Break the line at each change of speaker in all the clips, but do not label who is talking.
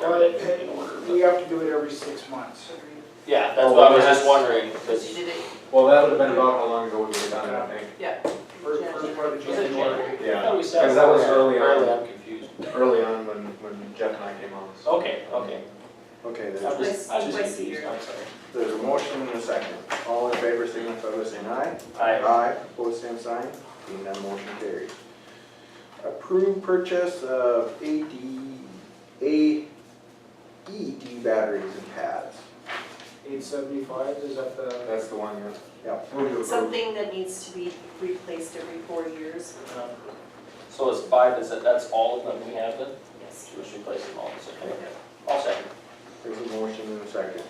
Well, it-
everything in order.
it-
but-
You have to do it every six months.
Yeah, that's
Oh,
what I
well,
was just
that's-
wondering,
Because you
because,
did it,
Well, that would have been about how long ago we would have done it, I think.
yeah.
First, first part of
was it January?
January.
I thought
Yeah,
we said.
Because that was
earlier.
early on.
Early, I'm confused.
early on when, when Jeff and I came on. so-
Okay, okay.
Okay,
I
there's,
was just, I was just
Twice a
confused,
year.
I'm sorry.
there's a motion and a second. All in favor, signify by saying aye.
I,
Aye, opposed, same sign. Being none, motion carried. Approved purchase of AD, AED E batteries and pads.
Eight seventy-five, is that the,
That's the one, yeah.
Yep.
Move to approve.
Something that needs to be replaced every four years,
uh,
so it's five, is that, that's all of them we have then?
yes.
We should place them all, so, okay, all second.
There's a motion and a second.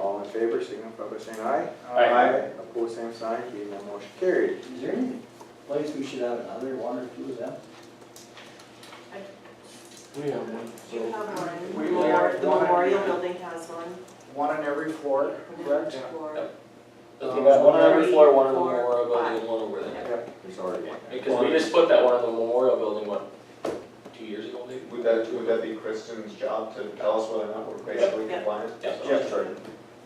All in favor, signify by saying aye.
Aye.
uh,
Opposed, same sign. Being none, motion carried.
Is there any place we should have another one or two of them?
We have one.
You have one.
We will have
The
one.
memorial building has one.
One on every floor, correct?
Or-
Because Uh, we got one on every floor, one in the
Three, four,
memorial building, and
five.
one over there.
Yep, there's already one.
Because we just put that one in the memorial building, what, two years ago maybe?
Would that, would that be Kristen's job to tell us whether or not we're basically
Yep.
compliant?
Yep.
Jeff, sorry.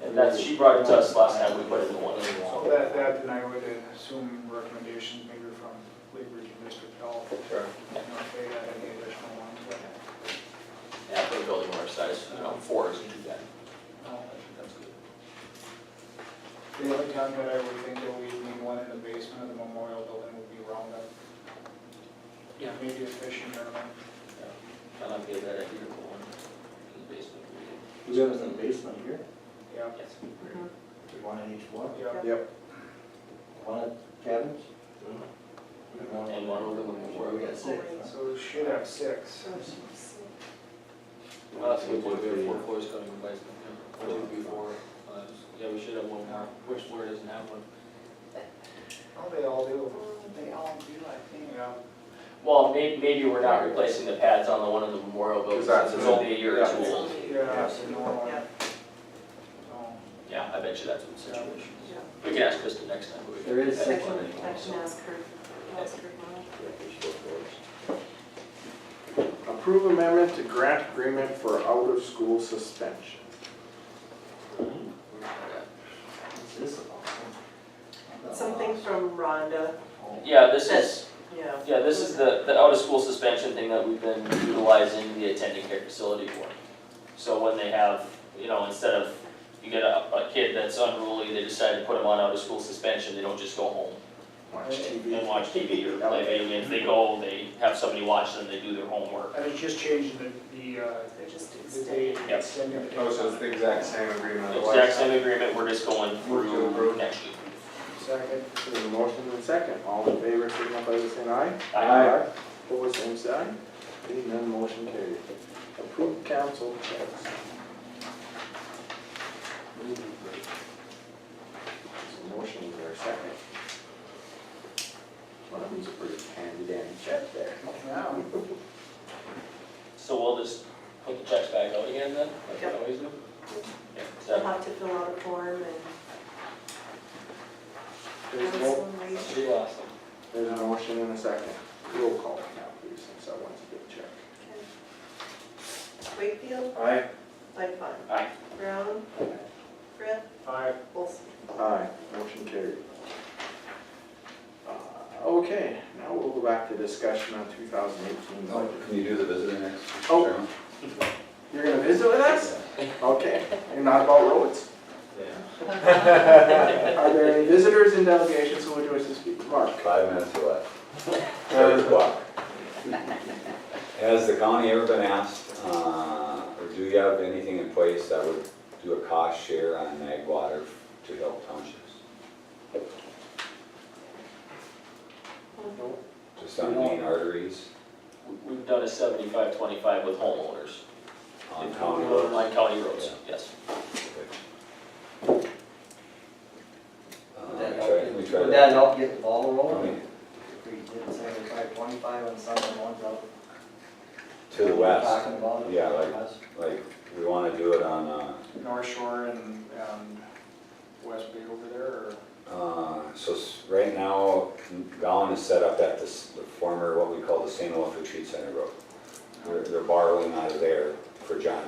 And that's, she brought it to us last time, we put it in the one, so.
That, that, and I would assume recommendations maybe from Labor and District Health, you
Sure.
know, if they had any additional ones, but,
Yeah, for a building our size, you know, four isn't too bad. I think that's good.
Uh, The only time that I would think that we'd need one in the basement of the memorial building would be Roundup.
Yeah.
Maybe a fishing tournament.
I like the idea that here, but one in the basement.
We have in the basement here,
Yeah,
Yes.
Mhm.
one in each floor,
yeah.
Yep,
one at cabins.
And one over the memorial.
We got six, huh?
So we should have six.
Well, that's a good point, we have four floors coming in place, yeah, one, two, three, four, uh, yeah, we should have one more, which floor doesn't have one?
Oh, they all do.
They
all do, I think. Yeah.
Well, may, maybe we're not replacing the pads on the one in the memorial building,
Because that's
since it's
new.
only a year or
Yeah.
two old.
Yeah, it's a normal.
Yeah.
So,
Yeah, I bet you that's what the situation is.
Yeah.
We can ask Krista next time, but we.
There is
I
I
think
six.
one
can, I
anymore,
can
so.
ask her, ask her tomorrow.
Approve amendment to grant agreement for out-of-school suspension.
What's this about?
Something from Rhonda,
Yeah, this is.
yeah.
Yeah, this is the, the out-of-school suspension thing that we've been utilizing the attending care facility for. So when they have, you know, instead of, you get a, a kid that's unruly, they decide to put them on out-of-school suspension, they don't just go home
Watch
and
TV.
watch TV or play video games, they go, they have somebody watch them, they do their homework.
And it's just changing the, the, uh,
They're just
the date,
extending.
Yep.
extending the date.
Oh, so it's the exact same agreement otherwise?
Exact same agreement, we're just going
Move to
through
approve.
next week.
Second.
There's a motion and a second. All in favor, signify by saying aye.
I-
Opposed, same sign. Being none, motion carried. Approved council checks. There's a motion, is there a second? One of them's a pretty handy dandy check there.
Now,
So we'll just put the checks back out again then, like we
Yep.
always do? Yeah, is
They'll
that-
have to fill out a form and
There's
have
no,
some reason.
Pretty awesome.
there's a motion and a second. Roll call now, please, since I want to get a check.
Wakefield,
Aye.
Lightfun.
Aye.
Brown. Brett.
aye.
Olson.
Aye, motion carried. Uh, Okay, now we'll go back to discussion on 2018
Oh,
budget.
Can you do the visitor next?
Oh.
Chairman?
You're gonna visit with us? Okay, and not about roads. Are there any visitors in delegation who would wish to speak? Mark?
Five minutes left. Third block. Has the county ever been asked, uh, or do you have anything in place that would do a cost share on ag water to help townships?
No.
Just on main arteries,
We- We've done a seventy-five, twenty-five with homeowners.
on county
On
roads?
county roads, yes.
Uh,
Would
we tried-
that
we
help,
tried-
would that help get the ball rolling?
County
If we did seventy-five, twenty-five on some of the ones out.
To the
we're
west,
Talking about.
Yeah, like- like, we wanna do it on, uh,
North Shore and, um, West Bay over there, or?
Uh, So s- right now, Gowan is set up at this, the former, what we call the St. Olaf Retreat Center Road. They're- They're borrowing out of there for John